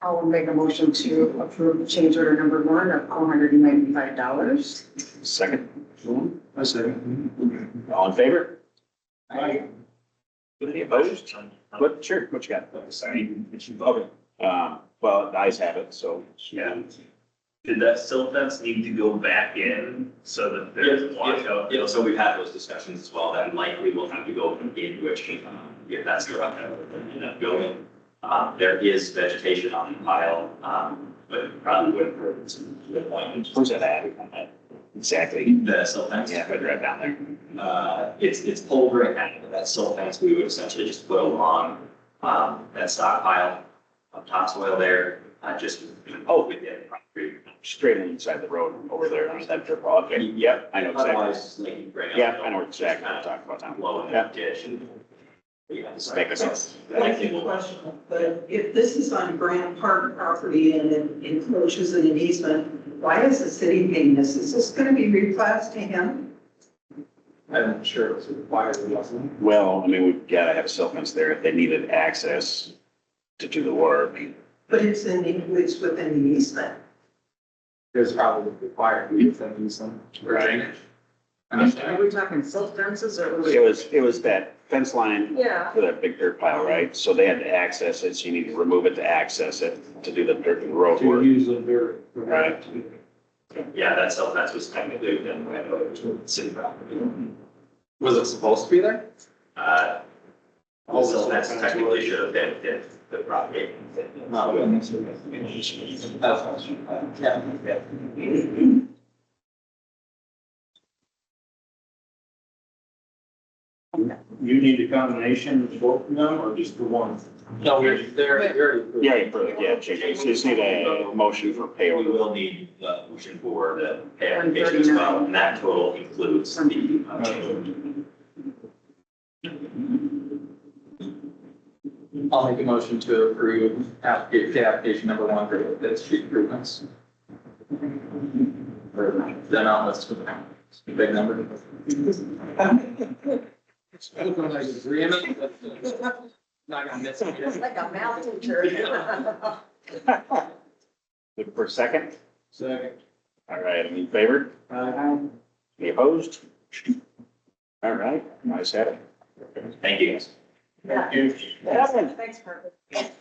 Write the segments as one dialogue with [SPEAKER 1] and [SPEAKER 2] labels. [SPEAKER 1] I'll make a motion to approve change order number one of four hundred and ninety-five dollars.
[SPEAKER 2] Second,
[SPEAKER 3] I second.
[SPEAKER 2] all in favor?
[SPEAKER 3] Aye.
[SPEAKER 2] Any opposed? What, sure, what you got? Sorry. Uh, well, the eyes have it, so.
[SPEAKER 4] Yeah. Did that silt fence need to go back in so that there's washout?
[SPEAKER 5] Yeah, so we've had those discussions as well, that likely we'll have to go into a change, um, if that's the route that we're going. Um, there is vegetation on the pile, um, but probably wouldn't hurt to the point.
[SPEAKER 2] Where's that at? Exactly.
[SPEAKER 5] The silt fence.
[SPEAKER 2] Yeah, right right down there.
[SPEAKER 5] Uh, it's, it's pulled right out of that silt fence, we would essentially just put along, um, that stockpile of topsoil there, uh, just, oh, within the property.
[SPEAKER 2] Straight inside the road over there, on that drip road. Okay, Yep, I know exactly.
[SPEAKER 5] Otherwise, like, you bring up.
[SPEAKER 2] Yeah, I know exactly what I'm talking about now.
[SPEAKER 5] Low in that ditch and. Yeah, it's like-
[SPEAKER 2] Makes sense.
[SPEAKER 6] That's a question, but if this is on Grant Park property and it encroaches in an easement, why is the city paying this? Is this gonna be replaced to him?
[SPEAKER 3] I'm sure it was required, wasn't it?
[SPEAKER 2] Well, I mean, we've got to have cell phones there if they needed access to do the work.
[SPEAKER 6] But it's in, the- it's within the easement.
[SPEAKER 3] It was probably required, we used them, use them.
[SPEAKER 2] Right.
[SPEAKER 1] Are we talking silt fences or?
[SPEAKER 2] It was, it was that fence line
[SPEAKER 1] Yeah.
[SPEAKER 2] for that big dirt pile, right? So they had to access it, so you need to remove it to access it, to do the dirt and road
[SPEAKER 3] To
[SPEAKER 2] work.
[SPEAKER 3] use them very.
[SPEAKER 2] Right.
[SPEAKER 5] Yeah, that cell fence was technically within the right of the city property.
[SPEAKER 3] Was it supposed to be there?
[SPEAKER 5] Uh, the cell fence
[SPEAKER 3] That's
[SPEAKER 5] technically should have been within the property.
[SPEAKER 3] Not really. That's what I was trying to- yeah.
[SPEAKER 4] You need a combination of both of them or just the one?
[SPEAKER 3] No, we're, they're, they're.
[SPEAKER 2] Yeah, for- yeah, JJ, so you just need a motion for pay
[SPEAKER 5] We
[SPEAKER 2] order.
[SPEAKER 5] will need the motion for the pay application as well, and that total includes the uh, change.
[SPEAKER 3] I'll make a motion to approve application, application number one for the street improvements. For the amount listed, it's a big number. Like agreement, but Not gonna miss
[SPEAKER 1] It's
[SPEAKER 3] it.
[SPEAKER 1] like a math teacher.
[SPEAKER 2] Look for a second.
[SPEAKER 3] Second.
[SPEAKER 2] All right, any in favor? Any opposed? All right, nice have it.
[SPEAKER 5] Thank you guys.
[SPEAKER 2] Evan,
[SPEAKER 1] Thanks, Margaret.
[SPEAKER 2] Would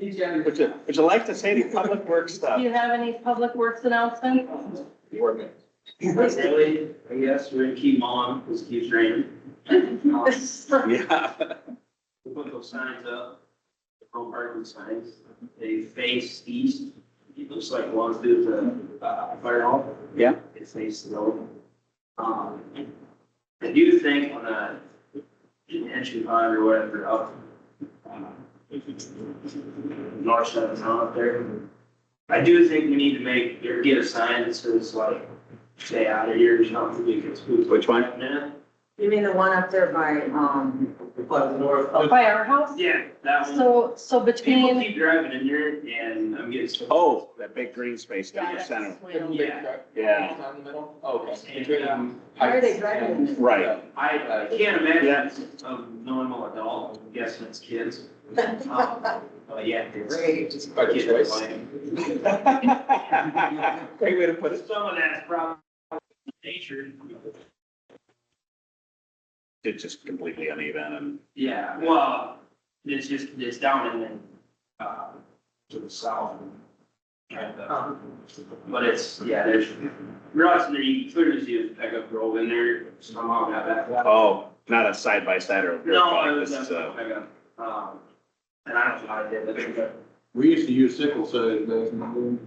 [SPEAKER 2] you, would you like to say the public work
[SPEAKER 7] Do
[SPEAKER 2] stuff?
[SPEAKER 7] you have any public works announcements?
[SPEAKER 4] Really, I guess we're gonna keep on, because it keeps raining.
[SPEAKER 2] Yeah.
[SPEAKER 4] We put those signs up, the pro parking signs, they face east. It looks like it walks through the uh, fire hall.
[SPEAKER 2] Yeah.
[SPEAKER 4] It faces the road. Um, I do think on the entry pond or whatever, up uh, north side of town up there. I do think we need to make, or get a sign that says like, stay out of here or something, because who's
[SPEAKER 2] Which one?
[SPEAKER 4] now?
[SPEAKER 1] You mean the one up there by, um,
[SPEAKER 4] But north.
[SPEAKER 7] Firehouse?
[SPEAKER 4] Yeah, that one.
[SPEAKER 7] So, so
[SPEAKER 4] People
[SPEAKER 7] between.
[SPEAKER 4] keep driving in there and I'm getting. so-
[SPEAKER 2] Oh, that big green space down the
[SPEAKER 7] Yeah,
[SPEAKER 2] center.
[SPEAKER 7] that's when-
[SPEAKER 4] Yeah.
[SPEAKER 2] Yeah,
[SPEAKER 3] Down the middle? Okay.
[SPEAKER 4] And, um,
[SPEAKER 1] why are they driving? in
[SPEAKER 2] right.
[SPEAKER 4] I uh, can't imagine of normal adult, I'm guessing it's kids.
[SPEAKER 1] this?
[SPEAKER 4] Um, But yeah. it's-
[SPEAKER 1] Great.
[SPEAKER 3] It's by
[SPEAKER 4] kids
[SPEAKER 3] choice.
[SPEAKER 4] playing.
[SPEAKER 2] Great way to put it.
[SPEAKER 4] Some of that's probably nature.
[SPEAKER 2] It's just completely uneven and,
[SPEAKER 4] Yeah, well, it's just, it's down and then, uh, to the south. and, uh, But it's, yeah, there's, roads and there, you clearly see a pickup roll in there somehow got that.
[SPEAKER 2] oh, not a side by side or a rear
[SPEAKER 4] No, it
[SPEAKER 2] car.
[SPEAKER 4] was
[SPEAKER 2] This is
[SPEAKER 4] definitely
[SPEAKER 2] a,
[SPEAKER 4] a pickup. uh, Um, and I don't know how I did that.
[SPEAKER 3] We used to use sickle so doesn't.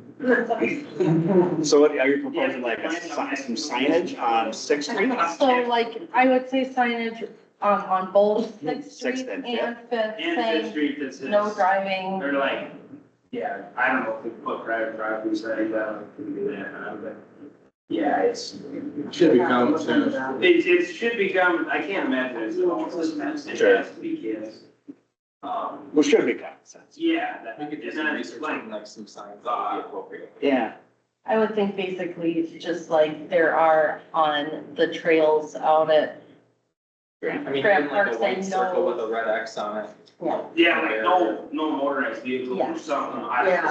[SPEAKER 2] so what, are you proposing like a sign, some signage on Sixth Street?
[SPEAKER 7] So like, I would say signage on, on both Sixth
[SPEAKER 2] Sixth
[SPEAKER 7] Street
[SPEAKER 2] and
[SPEAKER 7] and
[SPEAKER 2] Fifth.
[SPEAKER 7] Fifth
[SPEAKER 4] And Fifth
[SPEAKER 7] saying
[SPEAKER 4] Street that says,
[SPEAKER 7] no driving.
[SPEAKER 4] they're like, yeah, I don't know if they put private driveways, I think that would be that, but. Yeah, it's,
[SPEAKER 3] Should be common sense.
[SPEAKER 4] It, it should become, I can't imagine it's an office mess, it
[SPEAKER 2] Sure.
[SPEAKER 4] has to be kids. Um,
[SPEAKER 2] Well, should be common sense.
[SPEAKER 4] yeah, that, and then it's like,
[SPEAKER 3] like some signs.
[SPEAKER 2] Yeah.
[SPEAKER 7] I would think basically it's just like there are on the trails out at,
[SPEAKER 3] I mean,
[SPEAKER 7] Grant
[SPEAKER 3] even like a
[SPEAKER 7] Park
[SPEAKER 3] white
[SPEAKER 7] say
[SPEAKER 3] circle
[SPEAKER 7] no.
[SPEAKER 3] with a red X on it.
[SPEAKER 7] Yeah.
[SPEAKER 4] yeah, like no, no motorized vehicles or something, I don't
[SPEAKER 1] Yeah.